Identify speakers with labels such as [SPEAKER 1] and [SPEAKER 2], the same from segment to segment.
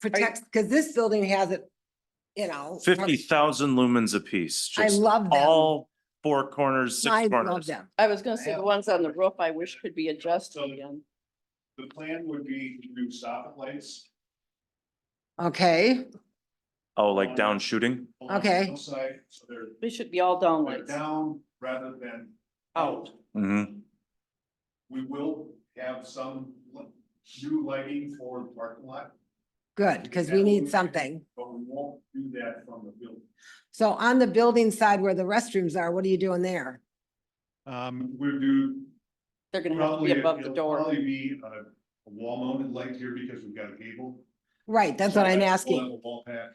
[SPEAKER 1] protects, because this building has it, you know.
[SPEAKER 2] Fifty thousand lumens apiece,
[SPEAKER 1] I
[SPEAKER 2] just
[SPEAKER 1] love them.
[SPEAKER 2] all four corners,
[SPEAKER 1] I
[SPEAKER 2] six
[SPEAKER 1] love
[SPEAKER 2] corners.
[SPEAKER 1] them.
[SPEAKER 3] I was gonna say the ones on the roof, I wish could be adjusted again.
[SPEAKER 4] The plan would be to do soffit lights.
[SPEAKER 1] Okay,
[SPEAKER 2] Oh, like down shooting?
[SPEAKER 4] along the
[SPEAKER 1] Okay.
[SPEAKER 4] Hillside, so they're,
[SPEAKER 3] They should be all down
[SPEAKER 4] they're
[SPEAKER 3] lights.
[SPEAKER 4] down rather than out.
[SPEAKER 2] Mm-hmm.
[SPEAKER 4] We will have some li- new lighting for the parking lot,
[SPEAKER 1] good, because we need something.
[SPEAKER 4] but we won't do that from the building.
[SPEAKER 1] So on the building side where the restrooms are, what are you doing there?
[SPEAKER 4] Um, we'll do
[SPEAKER 3] They're gonna have to
[SPEAKER 4] probably,
[SPEAKER 3] be above the
[SPEAKER 4] it'll
[SPEAKER 3] door.
[SPEAKER 4] probably be a a wall mounted light here because we've got a cable.
[SPEAKER 1] Right, that's what
[SPEAKER 4] So
[SPEAKER 1] I'm
[SPEAKER 4] we'll have
[SPEAKER 1] asking.
[SPEAKER 4] a Wall pack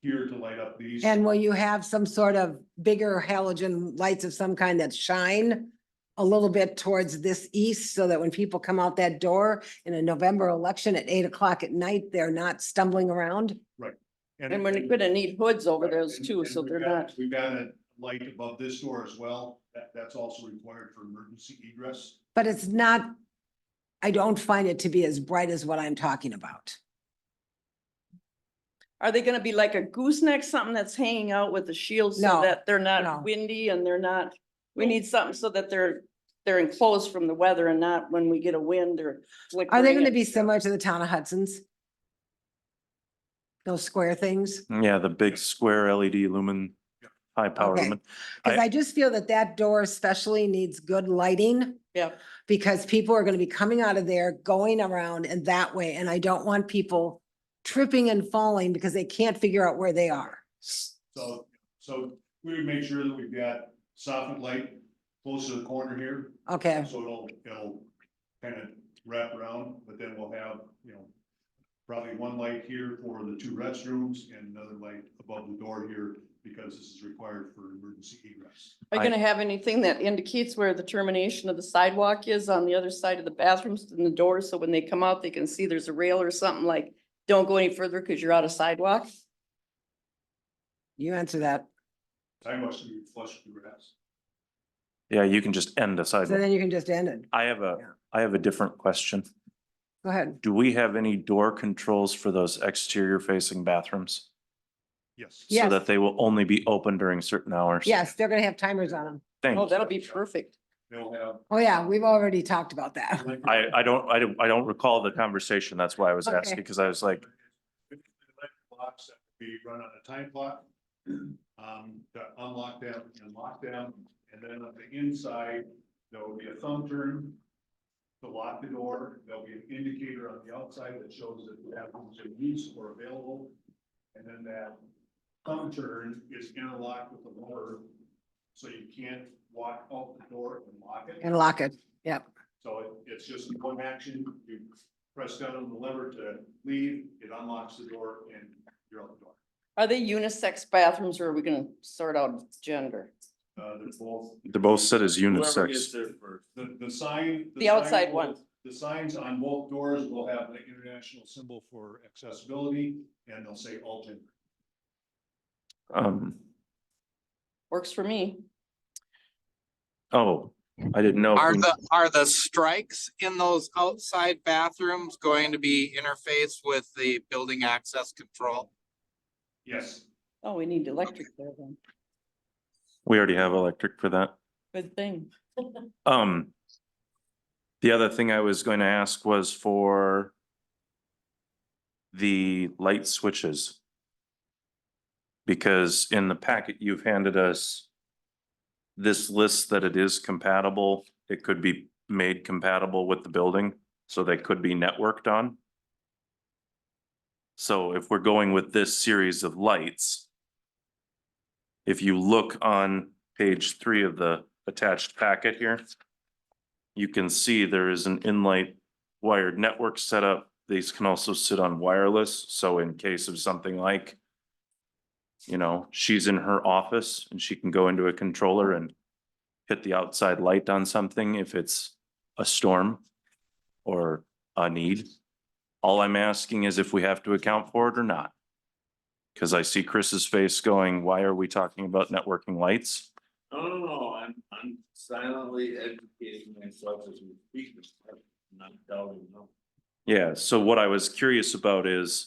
[SPEAKER 4] here to light up these.
[SPEAKER 1] And will you have some sort of bigger halogen lights of some kind that shine a little bit towards this east so that when people come out that door in a November election at eight o'clock at night, they're not stumbling around?
[SPEAKER 3] And we're gonna need hoods over those too, so they're not,
[SPEAKER 4] We've got a light above this door as well, that, that's also required for emergency egress.
[SPEAKER 1] But it's not, I don't find it to be as bright as what I'm talking about.
[SPEAKER 3] are they gonna be like a gooseneck, something that's hanging out with the shield
[SPEAKER 1] No,
[SPEAKER 3] so that they're
[SPEAKER 1] no.
[SPEAKER 3] not windy and they're not? We need something so that they're, they're enclosed from the weather and not when we get a wind or.
[SPEAKER 1] Are they
[SPEAKER 3] flickering
[SPEAKER 1] gonna
[SPEAKER 3] it.
[SPEAKER 1] be similar to the town of Hudson's? Those square things?
[SPEAKER 2] Yeah, the big square LED lumen, high power
[SPEAKER 1] Okay.
[SPEAKER 2] lumen.
[SPEAKER 1] Cause
[SPEAKER 2] I-
[SPEAKER 1] I just feel that that door especially needs good lighting.
[SPEAKER 3] Yep.
[SPEAKER 1] Because people are gonna be coming out of there, going around and that way, and I don't want people tripping and falling because they can't figure out where they are.
[SPEAKER 4] So, so we would make sure that we've got soffit light close to the corner here,
[SPEAKER 1] Okay,
[SPEAKER 4] so it'll, it'll kind of wrap around, but then we'll have, you know, probably one light here for the two restrooms and another light above the door here, because this is required for emergency egress.
[SPEAKER 3] Are
[SPEAKER 2] I-
[SPEAKER 3] you gonna have anything that indicates where the termination of the sidewalk is on the other side of the bathrooms and the doors, so when they come out, they can see there's a rail or something like, don't go any further because you're out of sidewalk?
[SPEAKER 1] you answer that.
[SPEAKER 4] I must be flush with grass.
[SPEAKER 2] Yeah, you can just end a
[SPEAKER 1] So
[SPEAKER 2] sidewalk.
[SPEAKER 1] then you can just end it.
[SPEAKER 2] I have a,
[SPEAKER 1] Yeah.
[SPEAKER 2] I have a different question.
[SPEAKER 1] Go ahead.
[SPEAKER 2] Do we have any door controls for those exterior facing bathrooms?
[SPEAKER 4] Yes.
[SPEAKER 2] So
[SPEAKER 1] Yes.
[SPEAKER 2] that they will only be open during certain hours?
[SPEAKER 1] Yes, they're gonna have timers on them.
[SPEAKER 2] Thank
[SPEAKER 3] Oh,
[SPEAKER 2] you.
[SPEAKER 3] that'll be perfect.
[SPEAKER 4] They'll have
[SPEAKER 1] Oh, yeah, we've already talked about that.
[SPEAKER 2] I, I don't, I don't, I don't recall the conversation. That's why I was
[SPEAKER 1] Okay.
[SPEAKER 2] asking, because I was like,
[SPEAKER 4] Blocks that we run on a time clock. Um, to unlock them and lock them, and then on the inside, there will be a thumb turn. To lock the door, there'll be an indicator on the outside that shows that the bathrooms in use or available. And then that thumb turn is interlocked with the motor, so you can't walk out the door and lock it.
[SPEAKER 1] And lock it.
[SPEAKER 4] So it- it's just one action, you press down on the lever to leave, it unlocks the door and you're out the door.
[SPEAKER 3] Are they unisex bathrooms or are we gonna sort out gender?
[SPEAKER 4] Uh, they're both.
[SPEAKER 2] they're both set as
[SPEAKER 5] Whoever gets
[SPEAKER 2] unisex.
[SPEAKER 5] there first.
[SPEAKER 4] The, the sign.
[SPEAKER 3] The
[SPEAKER 4] sign
[SPEAKER 3] outside
[SPEAKER 4] will-
[SPEAKER 3] one.
[SPEAKER 4] The signs on both doors will have the international symbol for accessibility and they'll say all gender.
[SPEAKER 2] Um,
[SPEAKER 3] Works for me.
[SPEAKER 2] oh, I didn't know. if
[SPEAKER 6] Are
[SPEAKER 2] we-
[SPEAKER 6] the, are the strikes in those outside bathrooms going to be interfaced with the building access control?
[SPEAKER 4] Yes,
[SPEAKER 3] Oh, we need electric there then.
[SPEAKER 2] We already have electric for that.
[SPEAKER 3] Good thing.
[SPEAKER 2] Um, the other thing I was going to ask was for the light switches. Because in the packet you've handed us this list that it is compatible, it could be made compatible with the building, so they could be networked on. So if we're going with this series of lights, if you look on page three of the attached packet here, you can see there is an inlight wired network setup. These can also sit on wireless, so in case of something like, you know, she's in her office and she can go into a controller and hit the outside light on something if it's a storm or a need. All I'm asking is if we have to account for it or not. Because I see Chris's face going, why are we talking about networking lights?
[SPEAKER 5] No, no, no, I'm, I'm silently educating myself as we speak. I'm Not doubting, no.
[SPEAKER 2] Yeah, so what I was curious about is